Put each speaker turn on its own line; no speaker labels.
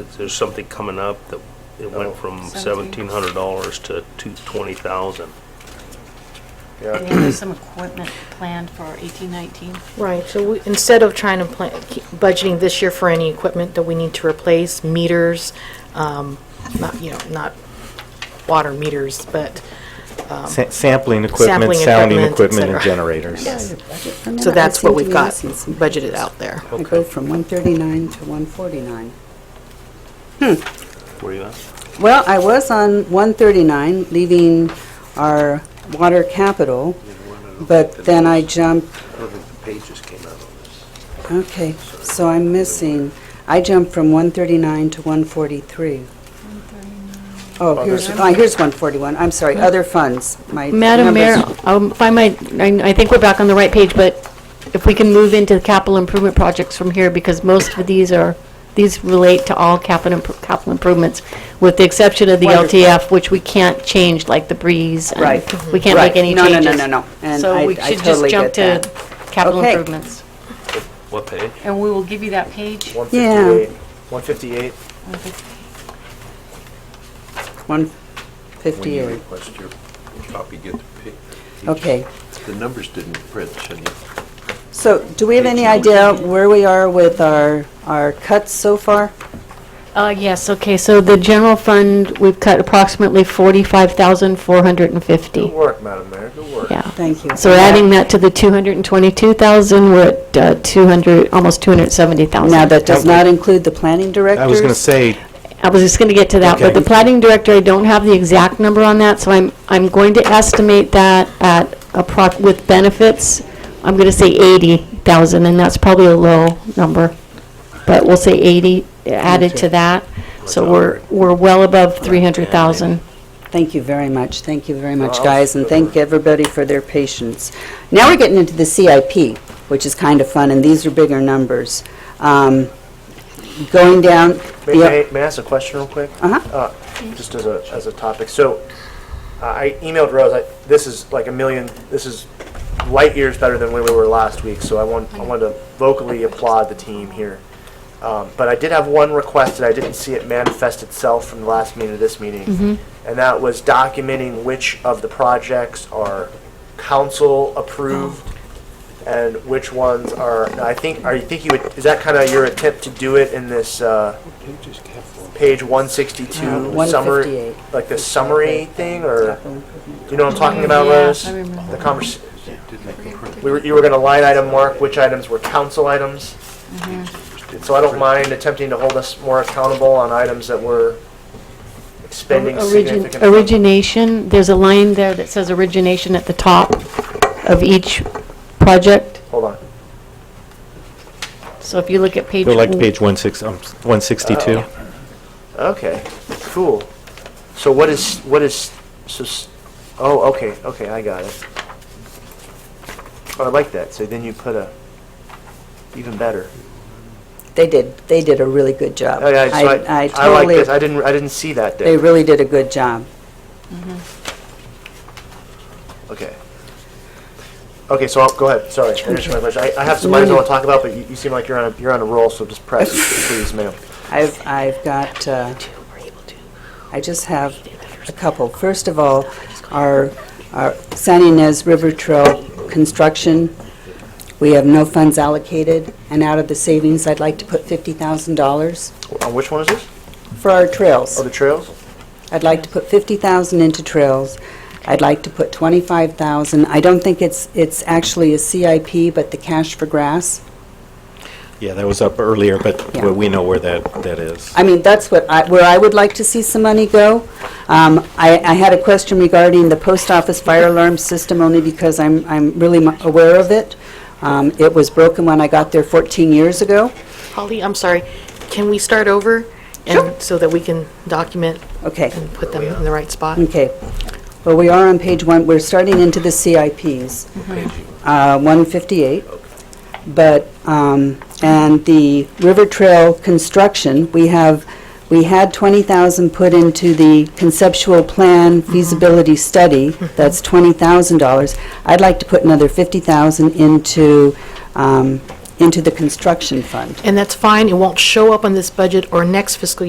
There's there's something coming up that it
Oh.
went from
Seventeen.
seventeen hundred dollars to two, twenty thousand.
And
Yeah,
there was some equipment planned for 1819.
Right, so we- instead of trying to plan, keep budgeting this year for any equipment that we need to replace, meters, um, not, you know, not water meters, but,
Sa- Sampling equipment,
Sampling
sounding
equipment, et
equipment, and
cetera.
generators.
so that's what we've got budgeted out there.
I go from 139 to 149.
Where you at?
Well, I was on 139, leaving our water capital, but then I jumped,
I don't think the pages came out on this.
okay, so I'm missing, I jumped from 139 to 143. Oh, here's, oh, here's 141, I'm sorry, other funds, my
Madam Mayor,
numbers-
um, if I might, I I think we're back on the right page, but if we can move into capital improvement projects from here, because most of these are, these relate to all capital imp- capital improvements, with the exception of the
Wonderful.
LTF, which we can't change, like the breeze. and
Right.
We can't make
Right.
any
No, no, no,
changes.
no, no. And I-
So we
I
should just
totally
jump
get
to capital
Okay.
improvements.
What page?
And we will give you that page.
158. 158.
When you
158,
request your copy, get the pic.
okay.
The numbers didn't print, Cindy.
So do we have any idea where we are with our, our cuts so far?
Uh, Yes, okay, so the general fund, we've cut approximately 45,450.
Good work, Madam Mayor, good work.
Yeah.
Thank you.
So adding that to the 222,000, we're at uh, 200, almost 270,000.
Now, that does not include the planning directors?
I was going to say,
I was just going to get to that, but the
Okay.
planning director, I don't have the exact number on that, so I'm, I'm going to estimate that at, appro- with benefits, I'm going to say 80,000, and that's probably a low number, but we'll say 80 added to that, so we're, we're well above 300,000.
Thank you very much, thank you very much, guys, and thank everybody for their patience. Now we're getting into the CIP, which is kind of fun, and these are bigger numbers. Um, Going down,
May-
yeah,
May may I ask a question real quick?
Uh-huh.
Uh, Just as a, as a topic. So uh, I I emailed Rose, I- this is like a million, this is light years better than where we were last week, so I want, I wanted to vocally applaud the team here. Um, But I did have one request that I didn't see it manifest itself from the last meeting to this meeting. And that was documenting which of the projects are council approved and which ones are, I think, are you think you would, is that kind of your attempt to do it in this, uh, page one
Uh,
sixty-two summary,
158.
like the summary thing, or, you know what I'm talking
Mm,
about, Rose? The convers, we were, you were gonna line item mark which items were council items.
Mm-hmm.
So I don't mind attempting to hold us more accountable on items that were expending
Origin-
significant.
Origination, there's a line there that says origination at the top of each project.
Hold on.
So if you look at page.
go like to
one-
page 16 um, 162.
Okay, cool. So what is, what is, so, s- oh, okay, okay, I got it. Oh, I like that, so then you put a, even better.
they did, they did a really good job.
Oh, yeah, so
I I
I like
totally-
this, I didn't, I didn't see that
They
there.
really did a good job.
Okay. Okay, so, I'll- go ahead, sorry, I just my question. I I have some items I want to talk about, but you you seem like you're on a, you're on a roll, so just press, please, ma'am.
I've, I've got, uh, I just have a couple. First of all, our, our San Ynez River Trail construction, we have no funds allocated, and out of the savings, I'd like to put $50,000
On Uh, which one is this?
for our trails.
Oh, the trails?
I'd like to put 50,000 into trails. I'd like to put 25,000, I don't think it's, it's actually a CIP, but the cash for grass.
Yeah, that was up earlier, but
Yeah.
we know where that, that is.
I mean, that's what I, where I would like to see some money go. Um, I, I had a question regarding the post office fire alarm system, only because I'm, I'm really mu- aware of it. Um, it was broken when I got there 14 years ago.
Holly, I'm sorry, can we start over? and So that we can document
Okay,
and put them in the right spot?
okay. Well, we are on page one, we're starting into the CIPs. Uh, 158. But, um, and the River Trail construction, we have, we had 20,000 put into the conceptual plan feasibility study, that's $20,000. I'd like to put another 50,000 into, um, into the construction fund.
And that's fine, it won't show up on this budget or next fiscal